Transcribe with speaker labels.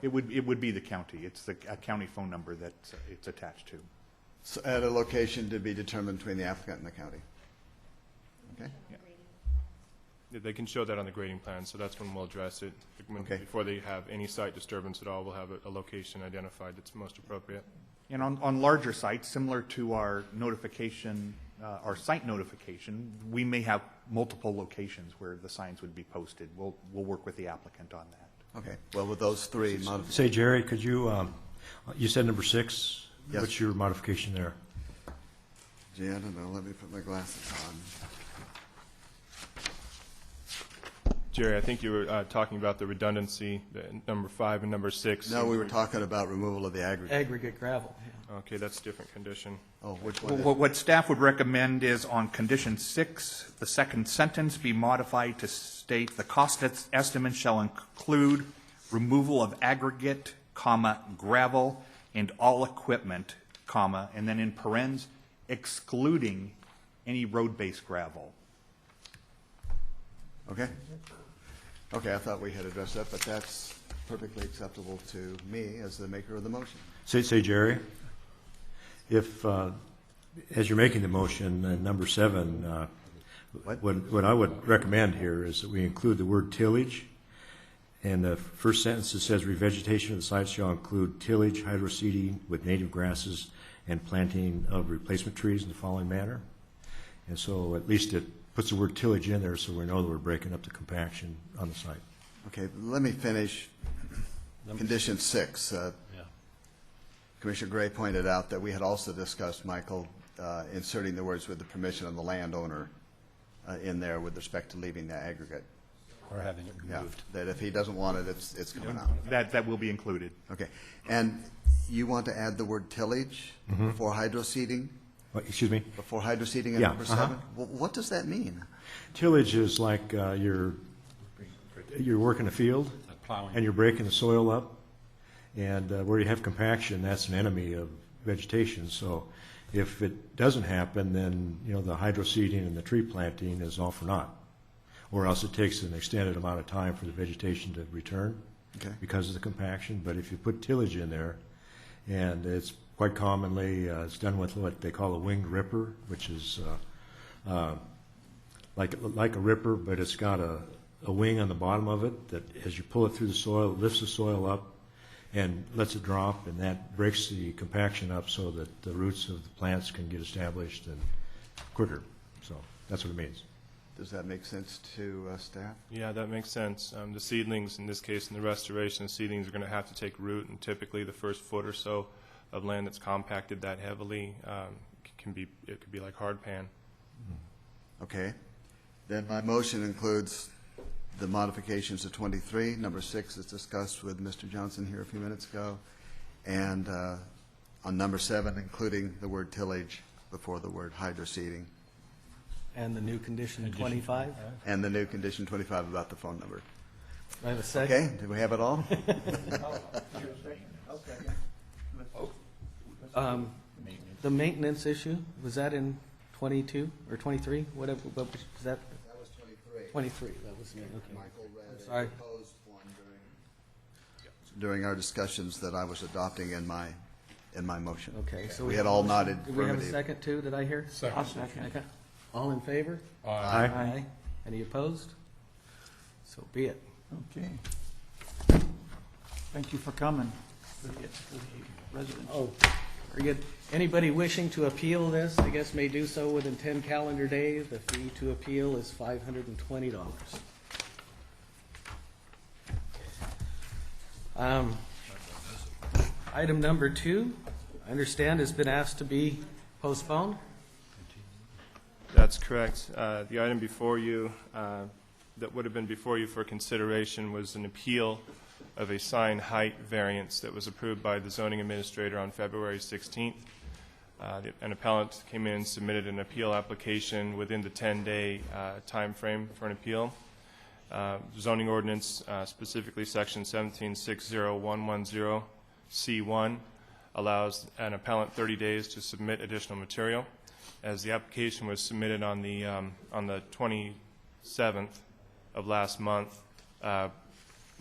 Speaker 1: It would, it would be the county. It's the a county phone number that uh, it's attached to.
Speaker 2: S- At a location to be determined between the applicant and the county. Okay?
Speaker 3: Yeah, They can show that on the grading plan, so that's when we'll address it. When-
Speaker 2: Okay.
Speaker 3: Before they have any site disturbance at all, we'll have a- a location identified that's most appropriate.
Speaker 1: And on, on larger sites, similar to our notification, uh, our site notification, we may have multiple locations where the signs would be posted. We'll, we'll work with the applicant on that.
Speaker 2: Okay, well, with those three modifications,
Speaker 4: Say, Jerry, could you, um, you said number six?
Speaker 2: Yes.
Speaker 4: What's your modification there?
Speaker 2: gee, I don't know, let me put my glasses on.
Speaker 3: Jerry, I think you were uh, talking about the redundancy, the number five and number six.
Speaker 2: No, we were talking about removal of the aggregate.
Speaker 5: aggregate gravel.
Speaker 3: Okay, that's a different condition.
Speaker 2: Oh, which one
Speaker 1: Well,
Speaker 2: is
Speaker 1: What, what staff would recommend is on condition six, the second sentence be modified to state the cost es- estimate shall include removal of aggregate, comma, gravel, and all equipment, comma, and then in parens, excluding any road-based gravel.
Speaker 2: Okay. Okay, I thought we had addressed that, but that's perfectly acceptable to me as the maker of the motion.
Speaker 4: Say, say, Jerry, if, uh, as you're making the motion, uh, number seven, uh,
Speaker 2: What?
Speaker 4: what, what I would recommend here is that we include the word tillage. And the first sentence that says revegetation of the site shall include tillage, hydroseeding with native grasses and planting of replacement trees in the following manner. And so at least it puts the word tillage in there so we know that we're breaking up the compaction on the site.
Speaker 2: Okay, let me finish condition six. Uh, Commissioner Gray pointed out that we had also discussed, Michael, uh, inserting the words with the permission of the landowner uh, in there with respect to leaving the aggregate.
Speaker 6: Or having it
Speaker 2: Yeah,
Speaker 6: removed.
Speaker 2: that if he doesn't want it, it's, it's coming out.
Speaker 1: That, that will be included.
Speaker 2: Okay, and you want to add the word tillage before hydroseeding,
Speaker 4: What, Excuse me?
Speaker 2: before hydroseeding at
Speaker 4: Mm-hmm. Yeah,
Speaker 2: number
Speaker 4: uh-huh.
Speaker 2: seven? Wh- What does that mean?
Speaker 4: Tillage is like uh, you're, you're working a field,
Speaker 6: Like plowing.
Speaker 4: and you're breaking the soil up, and uh, where you have compaction, that's an enemy of vegetation, so if it doesn't happen, then, you know, the hydroseeding and the tree planting is all for naught, or else it takes an extended amount of time for the vegetation to return
Speaker 2: Okay.
Speaker 4: because of the compaction, but if you put tillage in there, and it's quite commonly, uh, it's done with what they call a winged ripper, which is uh, like, like a ripper, but it's got a, a wing on the bottom of it that as you pull it through the soil, it lifts the soil up and lets it drop, and that breaks the compaction up so that the roots of the plants can get established and quicker. So that's what it means.
Speaker 2: Does that make sense to uh, staff?
Speaker 3: Yeah, that makes sense. Um, The seedlings, in this case, in the restoration, the seedlings are going to have to take root, and typically the first foot or so of land that's compacted that heavily um, c- can be, it could be like hard pan.
Speaker 2: Okay, then my motion includes the modifications to twenty-three, number six is discussed with Mr. Johnson here a few minutes ago, and uh, on number seven, including the word tillage before the word hydroseeding,
Speaker 5: And the new condition 25?
Speaker 2: and the new condition twenty-five about the phone number.
Speaker 5: Do I have a second?
Speaker 2: Okay, do we have it all?
Speaker 5: Um, The maintenance issue, was that in 22 or 23? Whatever, what was was that?
Speaker 2: That was twenty-three.
Speaker 5: 23, that was me, okay.
Speaker 2: Michael read
Speaker 5: I'm
Speaker 2: a
Speaker 5: sorry.
Speaker 2: proposed one during, during our discussions that I was adopting in my, in my motion.
Speaker 5: Okay, so
Speaker 2: We
Speaker 5: we-
Speaker 2: had all nodded
Speaker 5: Did we have a
Speaker 2: affirmative.
Speaker 5: second too, did I hear?
Speaker 6: Second. I'll second.
Speaker 5: Okay. All in favor?
Speaker 4: Aye.
Speaker 5: Any opposed? So be it.
Speaker 7: Okay. Thank you for coming. For the- for the residents.
Speaker 5: Oh, very good. Anybody wishing to appeal this, I guess may do so within 10 calendar days. The fee to appeal is $520. Um, Item number two, I understand has been asked to be postponed.
Speaker 3: That's correct. Uh, The item before you, uh, that would have been before you for consideration was an appeal of a sign height variance that was approved by the zoning administrator on February 16th. Uh, the- An appellant came in, submitted an appeal application within the 10-day time frame for an appeal. Uh, Zoning ordinance, uh, specifically Section 1760110C1, allows an appellant 30 days to submit additional material. As the application was submitted on the, um, on the 27th of last month, uh,